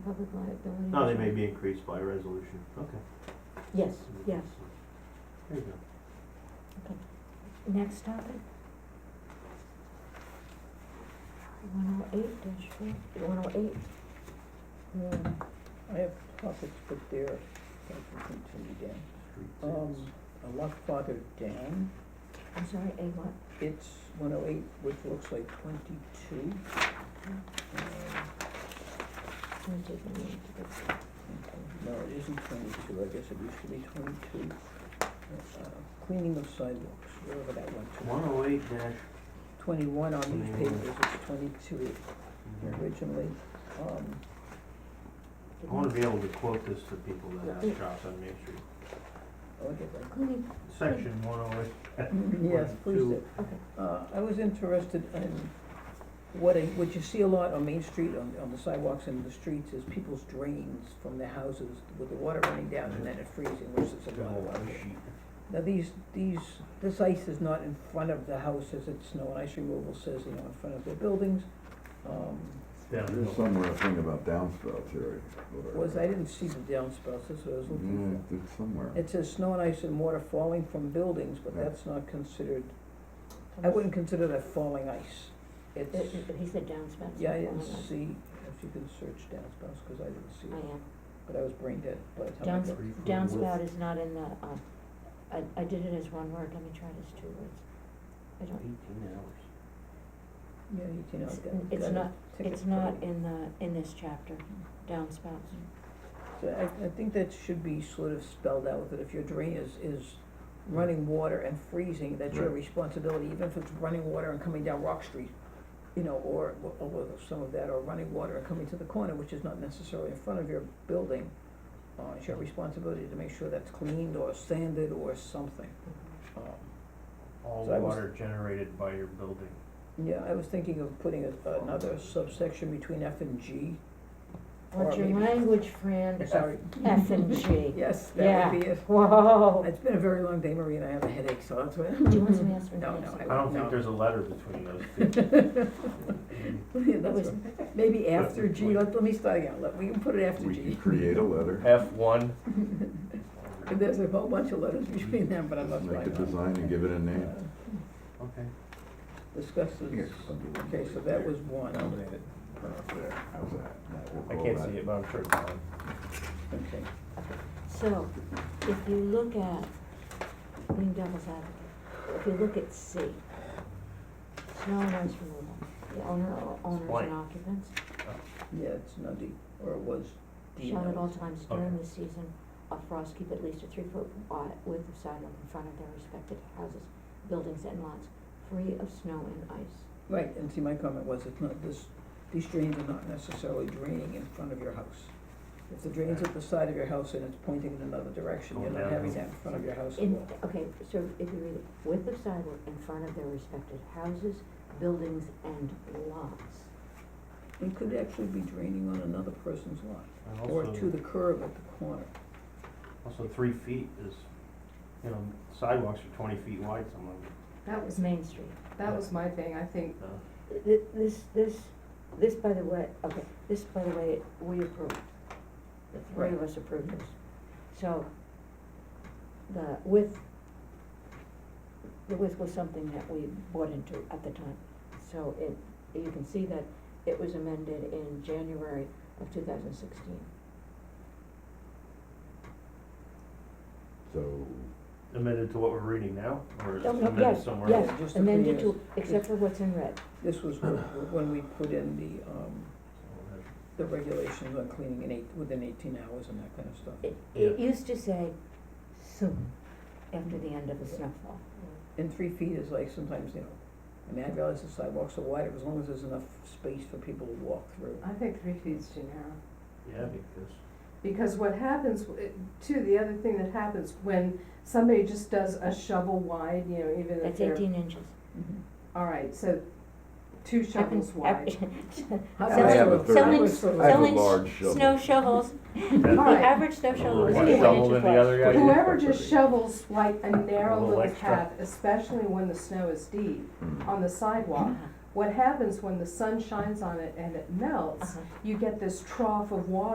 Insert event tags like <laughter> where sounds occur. public liability. No, Oh, they may be increased by resolution, okay. Yes, yes. There you go. Next topic? One oh eight dash four, one oh eight. Um, I have topics, but they're, I can continue down. Street sales. Um, a lot farther down, I'm sorry, A what? it's one oh eight, which looks like twenty-two. Um, I'm taking the name to the- Okay, No, it isn't twenty-two, I guess it used to be twenty-two. Uh, Cleaning of sidewalks, wherever that went to. One oh eight dash, Twenty-one on these Twenty-one. papers, it's twenty-two originally. Um, I wanna be able to quote this to people that Yeah. have shops on Main Street. I'll oh, get that. Cleaning, Section one oh eight. Yes, please do. okay, Uh, I was interested in what I, what you see a lot on Main Street, on, on the sidewalks and the streets, is people's drains from their houses with the water running down and then it freezing, which is a lot of water. Now, these, these, this ice is not in front of the houses, it's snow and ice removal says, you know, in front of their buildings. Um, There's somewhere a thing about downspouts, Harry. or- was, I didn't see the downspouts, that's what I was Yeah, looking it's somewhere. for. It says snow and ice and water falling from buildings, but Mm. Yeah. that's not considered, I wouldn't consider that falling ice. It's. Uh, uh, he said downspouts. Yeah, I Oh didn't my God. see, if you can search downspouts, because I didn't see I it, am, but I was brain dead by the time I Downs- got. downspout is not in the, uh, I, I did it as one word, let me try it as two words. I don't, Eighteen hours. Yeah, you can, It's- I've got, it's got a not- ticket it's for not it. in the, in this chapter, downspouts. Mm-hmm. So I, I think that should be sort of spelled out, that if your drain is, is running water and freezing, that's your Right. responsibility, even if it's running water and coming down Rock Street, you know, or, or with some of that, or running water and coming to the corner, which is not necessarily in front of your building, uh, it's your responsibility to make sure that's cleaned or sanded or something, um. All So I was- water generated by your building. Yeah, I was thinking of putting a- another subsection between F and G. What's Or your maybe- language, friend? Sorry. F and G. <laughs> Yes, Yeah. that would be it. Whoa. It's been a very long day, Marie, and I have a headache, so that's why. Do you want <laughs> some yes or No, no? no, I I don't won't. think no. there's a letter between those two. <laughs> <laughs> Yeah, <laughs> That that's was, what- Maybe after G, let, let me start again, let, we can put it after We can G. create a letter, <laughs> F one. And <laughs> there's a whole bunch of letters between them, but I'm not make a writing them. design and give it a name. Uh, Okay. Discuss Yeah, this, something like okay, so that. that was one, Right there, how's that? We'll I call can't that- see it, but I'm sure it's on. okay. so, if you look at, being devil's advocate, if you look at C, snow and ice removal, the owner or owners Blank. and occupants Yeah, it's not D, or it was D. shall at now. all times during the season of frost keep at least a three-foot wide width of sidewalk in front of their respective houses, buildings and lots, free of snow and ice. Right, and see, my comment was, it's not, this, these drains are not necessarily draining in front of your house. If the drain's at the side of your house and it's pointing in another direction, you're Going not having downhill. that in front of your house at In, all. okay, so if you read it, width of sidewalk in front of their respective houses, buildings and lots. It could actually be draining on another person's lot, And or also- to the curb at the corner. Also, three feet is, you know, sidewalks are twenty feet wide, someone, That was, Main Street. that was my thing, I think, uh, Th- This, this, this, by the way, okay, this, by the way, we approved. The three of us approved this. So, the width, the width was something that we bought into at the time. So it, you can see that it was amended in January of two thousand sixteen. So, amended to what we're reading now, or is it No, no, amended yes, somewhere else? yes, Yeah, just a few amended years. to, except for what's in red. This was wh- when we put in the, um, the regulations on cleaning in eight, within eighteen hours and that kind of stuff. It, it Yeah. used to say soon, after the end of a snowfall. And three feet is like sometimes, you know, I mean, I realize the sidewalks are wider, as long as there's enough space for people to walk through. I think three feet's too narrow. uh, Yeah, because Because what happens, it- too, the other thing that happens when somebody just does a shovel wide, you know, even if That's they're, eighteen inches. Mhm. all right, so two shovels Happens- wide. <laughs> I Selling- have a third- selling- I have a selling large s- shovel. snow <laughs> shovels, That's- the All right. average snow shovel is One eighteen inches wide. shovel than the other guy. Whoever just shovels like a A narrow little little extra. path, especially when the snow is deep mm, on the sidewalk, what happens when the sun shines on it and it melts, Uh-huh. you get this trough of water